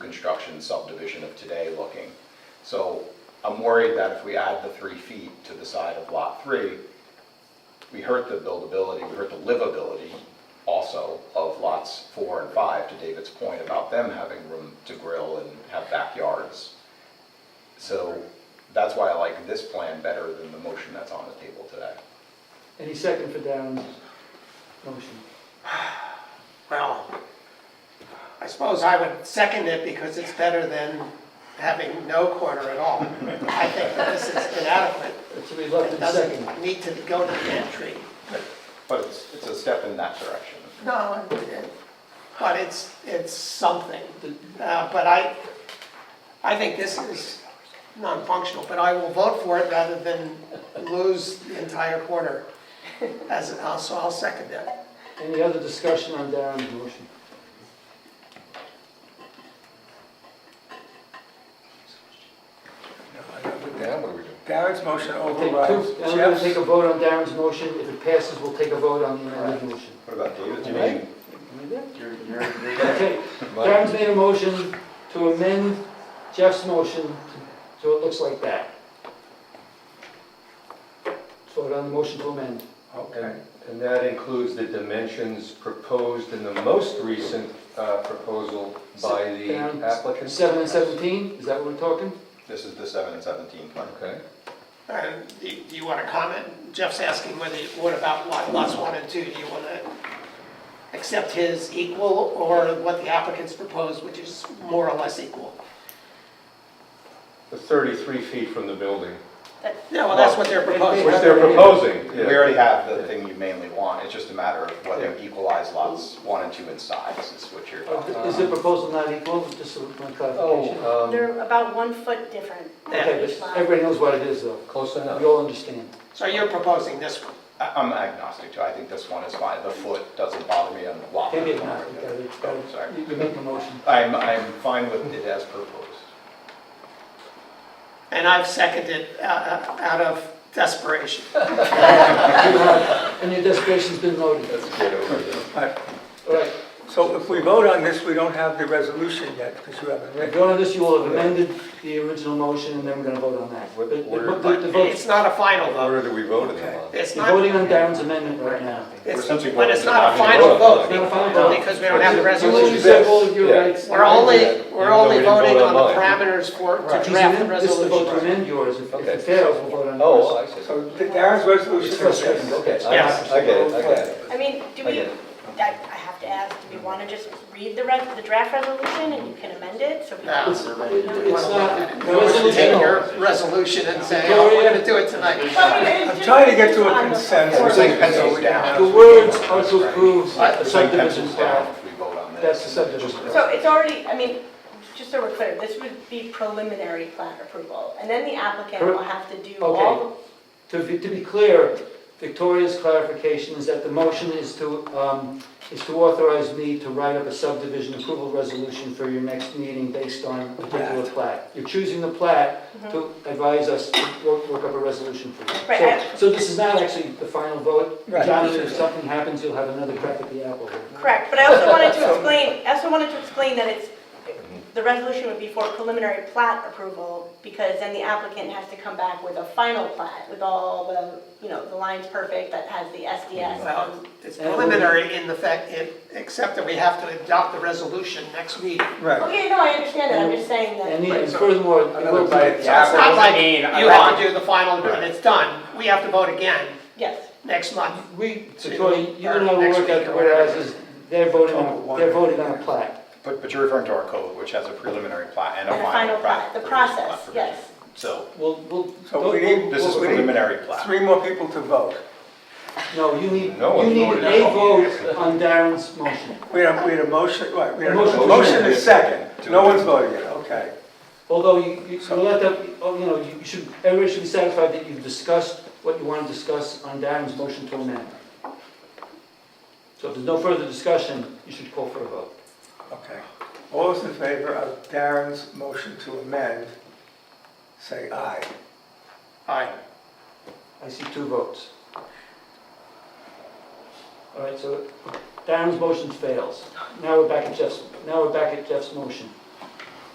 construction subdivision of today looking. So I'm worried that if we add the three feet to the side of lot three, we hurt the buildability, we hurt the livability also of lots four and five, to David's point about them having room to grill and have backyards. So that's why I like this plan better than the motion that's on the table today. Any second for Darren's motion? Well, I suppose I would second it because it's better than having no corner at all. I think that this is inadequate. It's a It reluctant second. doesn't need to go to the pantry. But it's, it's a step in that direction. No, it- it- but it's, it's something. Uh, But I, I think this is non-functional, but I will vote for it rather than lose the entire corner. As, I'll- so I'll second that. Any other discussion on Darren's motion? Now, what do we do? Barrett's motion Take overrides two, I'm gonna take Jeff's. a vote on Darren's motion, if it passes, we'll take a vote on the amended motion. What about David? Do you mean- Okay, Darren's made a motion to amend Jeff's motion, so it looks like that. Vote on the motion to amend. Okay. And and that includes the dimensions proposed in the most recent uh, proposal by the Down. applicant? Seven and seventeen, is that what we're talking? This is the seven and seventeen plan. Okay. And Uh, do you- do you want to comment? Jeff's asking whether, you- what about lot- lots one and two? Do you want to accept his equal or what the applicants proposed, which is more or less equal? The 33 feet from the building, Yeah, well, that's what they're proposing. which they're proposing. We already have the thing you mainly want, it's just a matter of whether you equalize lots one and two in size is what you're. Or Is the proposal not equal, just for my clarification? Oh, um, They're about one foot different. Okay, each but line. everybody knows what it is, though. close We enough. all understand. So you're proposing this one. I- I'm agnostic to, it. I think this one is fine, the foot doesn't bother me on the lot. Maybe it's not, you got it, got Oh, sorry. it. You- you make the motion. I'm, I'm fine with it as proposed. And I've seconded uh, uh, out of desperation. And your desperation's been noted. All right, So if we vote on this, we don't have the resolution yet, because you haven't if read you it. want this, you will have amended the original motion, and then we're gonna vote on that. But the- the- the vote- It's not a final vote. Where do we vote in the law? It's You're not, voting on Darren's amendment right now. it's- essentially but it's voting not to a not final vote It's not a final vote. because we don't have the You lose resolution. all of your Yeah. rights. We're only, Even we're though we only didn't vote voting on the on mine. parameters for, to He's draft the amend- This is the vote to resolution. amend yours, if if Okay. it fails, we'll vote on Oh, yours. I see. So Darren's resolution It's is frustrating, this. okay. I- Yes. I get it, I get it. I mean, do I we, get it. I I have to ask, do we want to just read the res- the draft resolution and you can amend it? So we No. can- It's it- it's not, the You want to resolution, take no. your resolution and say, oh, we're gonna do it tonight. Well, I mean, it's I'm trying to get just to a on the- We're consensus. saying so pencils we down. the words are to approve the We're saying subdivision pencils down plan. if we vote on this. That's the subdivision. So it's already, I mean, just so we're clear, this would be preliminary plan approval. And then the applicant will have to do all Okay. To be, to be clear, Victoria's clarification is that the motion is to, um, is to authorize me to write up a subdivision approval resolution for your next meeting based on a particular plat. You're choosing the plat to advise us to work, work up a resolution for you. Mm-hmm. Right, So- I- So this is not actually the final vote. Right. Jonathan, if something happens, you'll have another crack at the apple. here. Correct, but I also wanted to explain, I also wanted to explain that it's, the resolution would be for preliminary plat approval, because then the applicant has to come back with a final plat, with all the, you know, the lines perfect, that has the SDS. Well, and- it's preliminary in the fact, it- except that we have to adopt the resolution next meeting. Right. Okay, no, I understand that, I'm just saying And that, the- and furthermore, it will be- bite at the So it's not like mean a you have lot. to do the final and it's done. We have to vote again yes, next month. we, Victoria, you and I Or will next work week out or the whatever. whereas, they're voting on, they're voting on a plat. But, but you're referring to our code, which has a preliminary plat and a and a final plat. plat, the provision, plat process, provision. yes. So We'll, we'll. So we need, this is we need preliminary plat. three more people to vote. No, you need, No one you need voted a at all. vote on Darren's motion. We had, a- we had a motion, right, we had a Motion. motion is second. To No amend. one's voting yet, okay. Although you, you, you let that, oh, you know, you should, everybody should be satisfied that you've discussed what you want to discuss on Darren's motion to amend. So if there's no further discussion, you should call for a vote. Okay. All those in favor of Darren's motion to amend, say aye. Aye. I see two votes. All right, so Darren's motion fails. Now we're back at Jeff's, now we're back at Jeff's motion.